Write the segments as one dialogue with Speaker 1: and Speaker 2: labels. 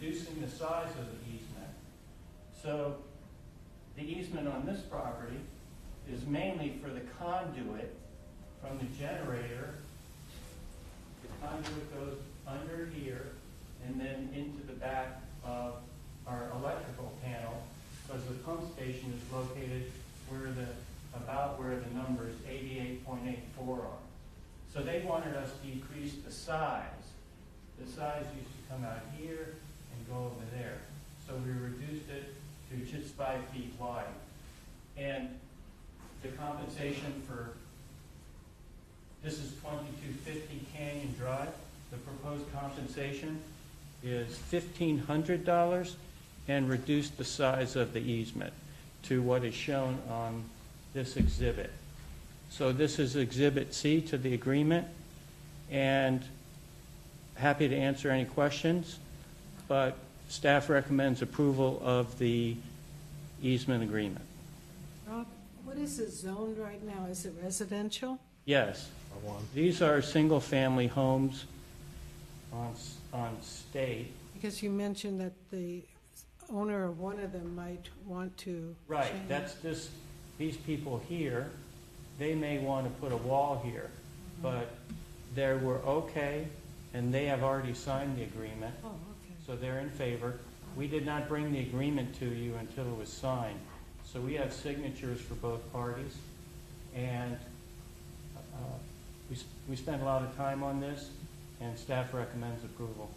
Speaker 1: the size of the easement. So the easement on this property is mainly for the conduit from the generator. The conduit goes under here and then into the back of our electrical panel because the pump station is located where the, about where the numbers eighty-eight point eight four are. So they wanted us to decrease the size. The size used to come out here and go over there. So we reduced it to just five feet wide. And the compensation for, this is twenty-two fifty Canyon Drive. The proposed compensation is fifteen hundred dollars and reduced the size of the easement to what is shown on this exhibit. So this is Exhibit C to the agreement, and happy to answer any questions, but staff recommends approval of the easement agreement.
Speaker 2: Rob, what is it zoned right now? Is it residential?
Speaker 1: Yes, these are single-family homes on, s- on state.
Speaker 2: Because you mentioned that the owner of one of them might want to.
Speaker 1: Right,
Speaker 2: change.
Speaker 1: that's this, these people here, they may want to put a wall here, but they were okay, and they have already signed the agreement.
Speaker 2: Oh, okay.
Speaker 1: So they're in favor. We did not bring the agreement to you until it was signed. So we have signatures for both parties. And uh, we s- we spent a lot of time on this, and staff recommends approval.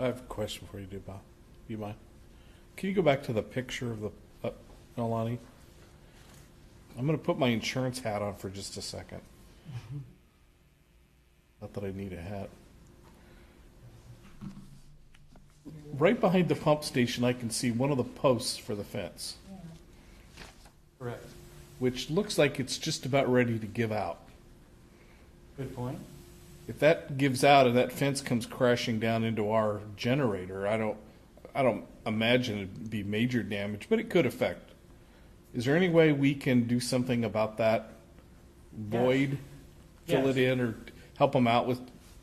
Speaker 3: I have a question for you, too, Bob. You mind? Can you go back to the picture of the uh, Nolani? I'm going to put my insurance hat on for just a second. Not that I need a hat. Right behind the pump station, I can see one of the posts for the fence,
Speaker 1: Correct.
Speaker 3: which looks like it's just about ready to give out.
Speaker 1: Good point.
Speaker 3: If that gives out and that fence comes crashing down into our generator, I don't, I don't imagine it'd be major damage, but it could affect. Is there any way we can do something about that void? Fill it in or help them out with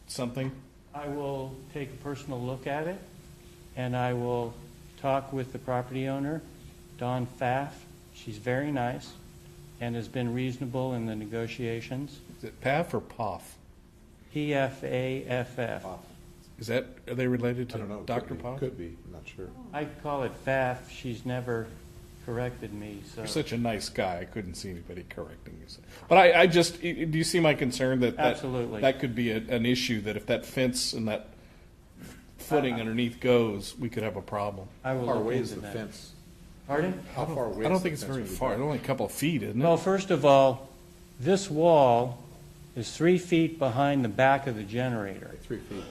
Speaker 3: something?
Speaker 1: I will take a personal look at it, and I will talk with the property owner, Dawn Pfaff. She's very nice and has been reasonable in the negotiations.
Speaker 3: Is it PAF or POF?
Speaker 1: P-F-A-F-F.
Speaker 3: Is that, are they related
Speaker 4: I don't
Speaker 3: to
Speaker 4: know.
Speaker 3: Dr.
Speaker 4: Paul
Speaker 3: POF?
Speaker 4: Could be, I'm not sure.
Speaker 1: I call it Pfaff, she's never corrected me, so.
Speaker 3: You're such a nice guy, I couldn't see anybody correcting you. But I, I just, i- i- do you see my concern that? that-
Speaker 1: Absolutely.
Speaker 3: That could be a- an issue, that if that fence and that footing underneath goes, we could have a problem.
Speaker 1: I will
Speaker 4: How far
Speaker 1: look
Speaker 4: away is
Speaker 1: into
Speaker 4: the
Speaker 1: that.
Speaker 4: fence?
Speaker 1: Pardon?
Speaker 4: How far away?
Speaker 3: I don't
Speaker 4: is the
Speaker 3: think it's
Speaker 4: fence
Speaker 3: very
Speaker 4: from the
Speaker 3: far,
Speaker 4: back?
Speaker 3: only a couple of feet, isn't
Speaker 1: Well,
Speaker 3: it?
Speaker 1: first of all, this wall is three feet behind the back of the generator.
Speaker 4: Three feet.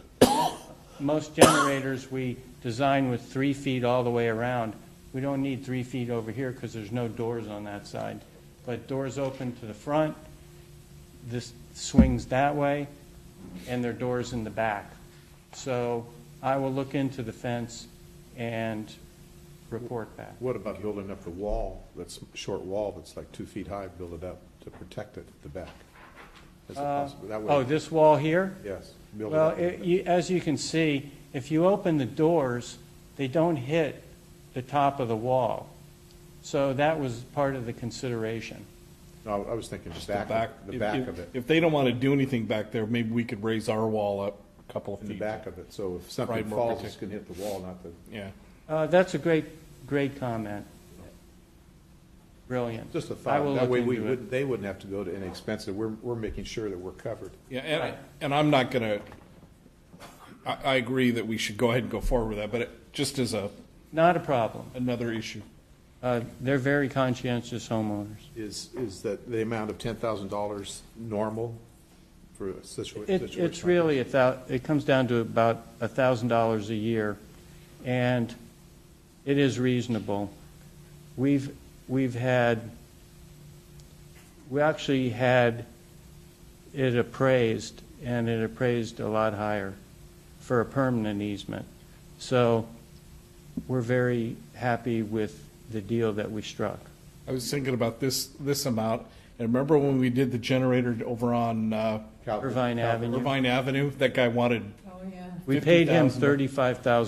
Speaker 1: Most generators, we design with three feet all the way around. We don't need three feet over here because there's no doors on that side. But doors open to the front, this swings that way, and there are doors in the back. So I will look into the fence and report back.
Speaker 4: What about building up the wall, that's short wall, that's like two feet high, build it up to protect it at the back? Is it possible, that
Speaker 1: Oh,
Speaker 4: way,
Speaker 1: this wall here?
Speaker 4: yes. build it
Speaker 1: Well,
Speaker 4: up.
Speaker 1: it- you- as you can see, if you open the doors, they don't hit the top of the wall. So that was part of the consideration.
Speaker 4: No, I was thinking just
Speaker 3: The
Speaker 4: back, of- the
Speaker 3: if-
Speaker 4: back
Speaker 3: if-
Speaker 4: of it,
Speaker 3: If they don't want to do anything back there, maybe we could raise our wall up a couple of
Speaker 4: in the
Speaker 3: feet.
Speaker 4: back of it, so if
Speaker 3: Probably
Speaker 4: something
Speaker 3: more
Speaker 4: falls,
Speaker 3: protect-
Speaker 4: it's gonna hit the wall, not the,
Speaker 3: Yeah.
Speaker 1: Uh, That's a great, great comment. Brilliant.
Speaker 4: just a
Speaker 1: I will
Speaker 4: thought. That way,
Speaker 1: look
Speaker 4: we
Speaker 1: into it.
Speaker 4: wouldn't, they wouldn't have to go to any expense, that we're, we're making sure that we're covered.
Speaker 3: Yeah, and, and I'm not gonna, I, I agree that we should go ahead and go forward with that, but it, just as a,
Speaker 1: Not a problem.
Speaker 3: another issue.
Speaker 1: Uh, They're very conscientious homeowners.
Speaker 4: Is, is that the amount of ten thousand dollars normal for a situa-
Speaker 1: It-
Speaker 4: situation? like
Speaker 1: It's
Speaker 4: this?
Speaker 1: really, a thou- it comes down to about $1,000 a year, and it is reasonable. We've, we've had, we actually had it appraised, and it appraised a lot higher for a permanent easement. So we're very happy with the deal that we struck.
Speaker 3: I was thinking about this, this amount, and remember when we did the generator over on, uh,
Speaker 4: Cal-
Speaker 1: Irvine Avenue,
Speaker 3: Irvine Avenue? That guy wanted
Speaker 2: Oh, yeah.
Speaker 1: we paid him
Speaker 3: $50,000.
Speaker 1: $35,000.